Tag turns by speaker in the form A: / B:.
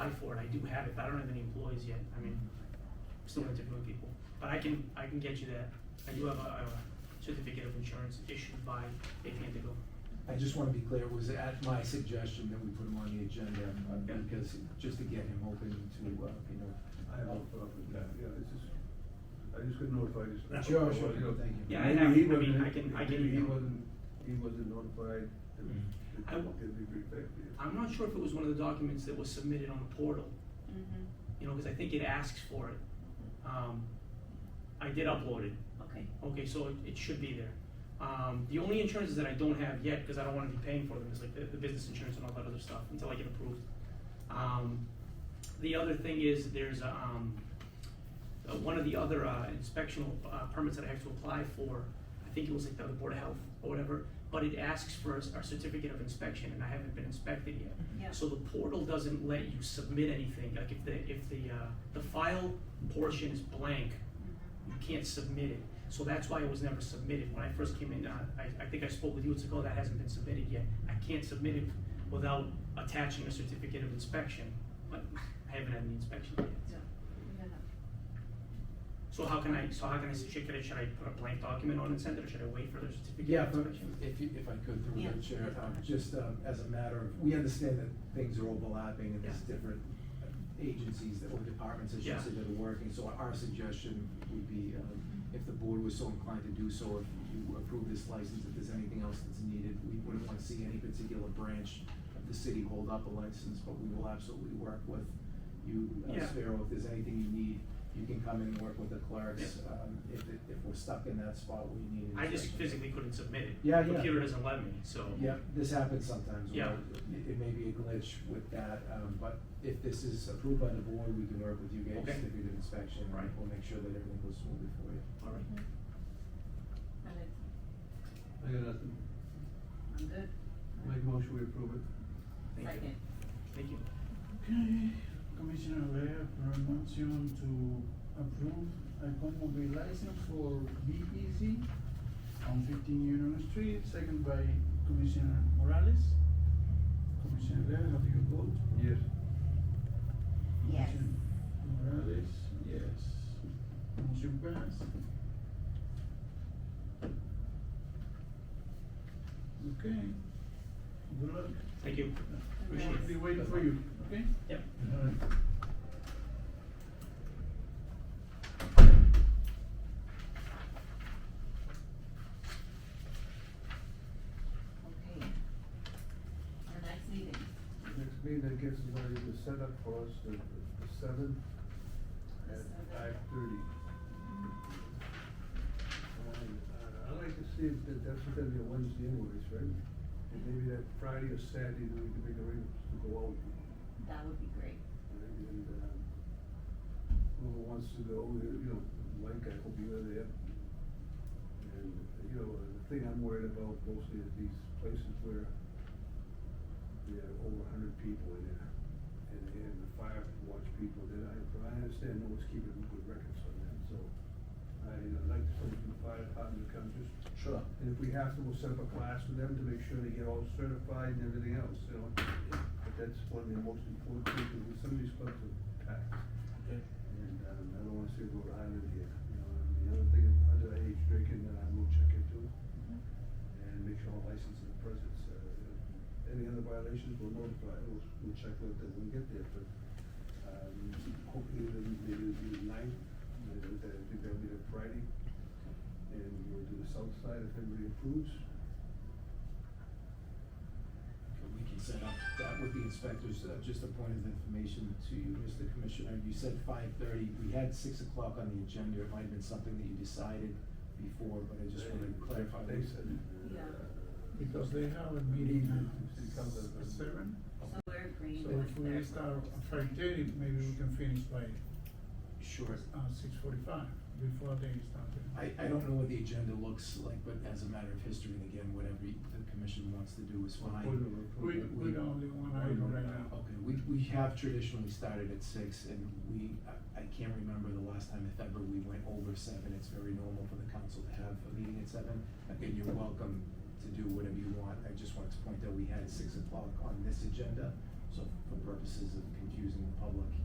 A: apply for it, I do have it, but I don't have any employees yet, I mean, still interviewing people. But I can, I can get you that, I do have a, a certificate of insurance issued by Big Indigo.
B: I just wanna be clear, it was at my suggestion that we put him on the agenda, uh,
A: Yeah.
B: because, just to get him open to, uh, you know.
C: I have no problem with that, yeah, it's just, I just got notified this.
A: That's
B: Sure,
C: Well,
B: sure,
C: you know,
B: thank you.
A: Yeah, I-
C: maybe
A: I-
C: he
A: I mean,
C: wasn't-
A: I can- I can
C: maybe He
A: email. Mm-hmm.
C: wasn't, he wasn't notified. that-
B: Mm.
C: that
A: I will-
C: Can be prepared, yeah.
A: I'm not sure if it was one of the documents that was submitted on the portal,
D: Mm-hmm,
A: you know, cause I think it asks for it. Um, I did upload it,
D: okay.
A: Okay, so it, it should be there. Um, the only insurances that I don't have yet, because I don't wanna be paying for them, is like the, the business insurance and all that other stuff, until I get approved. Um, the other thing is, there's, um, uh, one of the other, uh, inspectional, uh, permits that I have to apply for, I think it was like the Board of Health or whatever, but it asks for a, our certificate of inspection, and I haven't been inspected yet.
D: Yeah.
A: So the portal doesn't let you submit anything, like if the, if the, uh, the file portion is blank,
D: Mm-hmm.
A: you can't submit it. So that's why it was never submitted. When I first came in, uh, I, I think I spoke with you, it's like, oh, that hasn't been submitted yet. I can't submit it without attaching a certificate of inspection, but I haven't had the inspection yet.
D: Yeah.
A: So how can I, so how can I, should I, should I put a blank document on and send it, or should I wait for the certificate
B: Yeah,
A: of
B: but
A: inspection?
B: if, you- if I could, through
D: Yeah,
B: the chair,
D: that's
B: um,
D: fine.
B: just, um, as a matter of, we understand that things are overlapping and there's
A: Yeah.
B: different uh, agencies that, or departments, I
A: Yeah.
B: should say, that are working, so our suggestion would be, um, if the board was so inclined to do so, if you approve this license, if there's anything else that's needed, we wouldn't wanna see any particular branch of the city hold up a license, but we will absolutely work with you, uh,
A: Yeah.
B: Sparrow, if there's anything you need, you can come in and work with the clerks, um, if, it- if we're stuck in that spot where you need.
A: I just
B: instructions.
A: physically couldn't submit it.
B: Yeah,
A: The
B: yeah.
A: Computer doesn't let me, so.
B: Yeah, this happens sometimes. where
A: Yeah.
B: It it may be a glitch with that, um, but if this is approved by the board, we can work with you guys
A: Okay.
B: to do the inspection. and
A: Right.
B: We'll make sure that everything goes smoothly for you.
A: All right.
D: And it,
C: I got nothing,
D: I'm good.
C: make a motion, we approve it.
A: Thank you.
D: Second.
A: Thank you.
E: Okay, Commissioner Lea, for a motion to approve a automobile license for Be Easy on fifteen Union Street, second by Commissioner Morales. Commissioner Lea, how do you vote?
C: Yes.
D: Yes.
E: Commissioner Morales, yes. Motion passed. Okay. Good luck.
A: Thank you. Appreciate
E: We'll
A: it.
E: be waiting for you, okay?
A: Yep.
E: Alright.
D: Okay. Our next meeting,
C: Next meeting, I guess, is going to be the setup for us, the, the seventh
D: The
C: at
D: seventh.
C: five thirty.
D: Mm-hmm.
C: Uh, I'd like to see if that, that's gonna be a Wednesday anyways, right? And maybe that Friday or Saturday, then we can make arrangements to go out.
D: that would be great.
C: right? And, um, whoever wants to go, you know, Mike, I hope you're there. And, you know, the thing I'm worried about mostly is these places where there are over a hundred people in there. And, and the fire watch people, then I, but I understand no one's keeping good records on that, so I, I'd like to send the fire department to come just
B: Sure.
C: and if we have to, we'll set up a class for them to make sure they get all certified and everything else, you know? But that's one of the most important things, because some of these clubs are packed. And, um, I don't wanna see Rhode Island here, you know, and the other thing, underage drinking, that I will uh, check into. And make sure all licenses are present, so, uh, any other violations, we'll notify, we'll, we'll check with them when we get there, but, um, hopefully, then maybe it'll be the ninth, uh, I think that'll be the Friday. And we'll do the south side if everybody approves.
B: We can set up, that with the inspectors, uh, just a point of information to you, Mr. Commissioner, you said five thirty, we had six o'clock on the agenda, it might have been something that you decided before, but I just wanted to clarify.
C: They said. uh,
D: Yeah.
E: Because they have a meeting
C: City
E: at
C: Council.
E: s- seven,
D: So we're agreeing
E: so
D: with
E: if we
D: their.
E: start at five thirty, maybe we can finish by,
B: Sure.
E: uh, six forty-five, before they start.
B: I, I don't know what the agenda looks like, but as a matter of history, and again, whatever the commission wants to do is fine.
C: Approve it, approve
E: We,
C: it.
E: we got only one item right now.
B: Okay, we, we have traditionally started at six and we, I, I can't remember the last time if ever we went over seven. It's very normal for the council to have a meeting at seven. Again, you're welcome to do whatever you want. I just wanted to point out we had six o'clock on this agenda. So for purposes of confusing the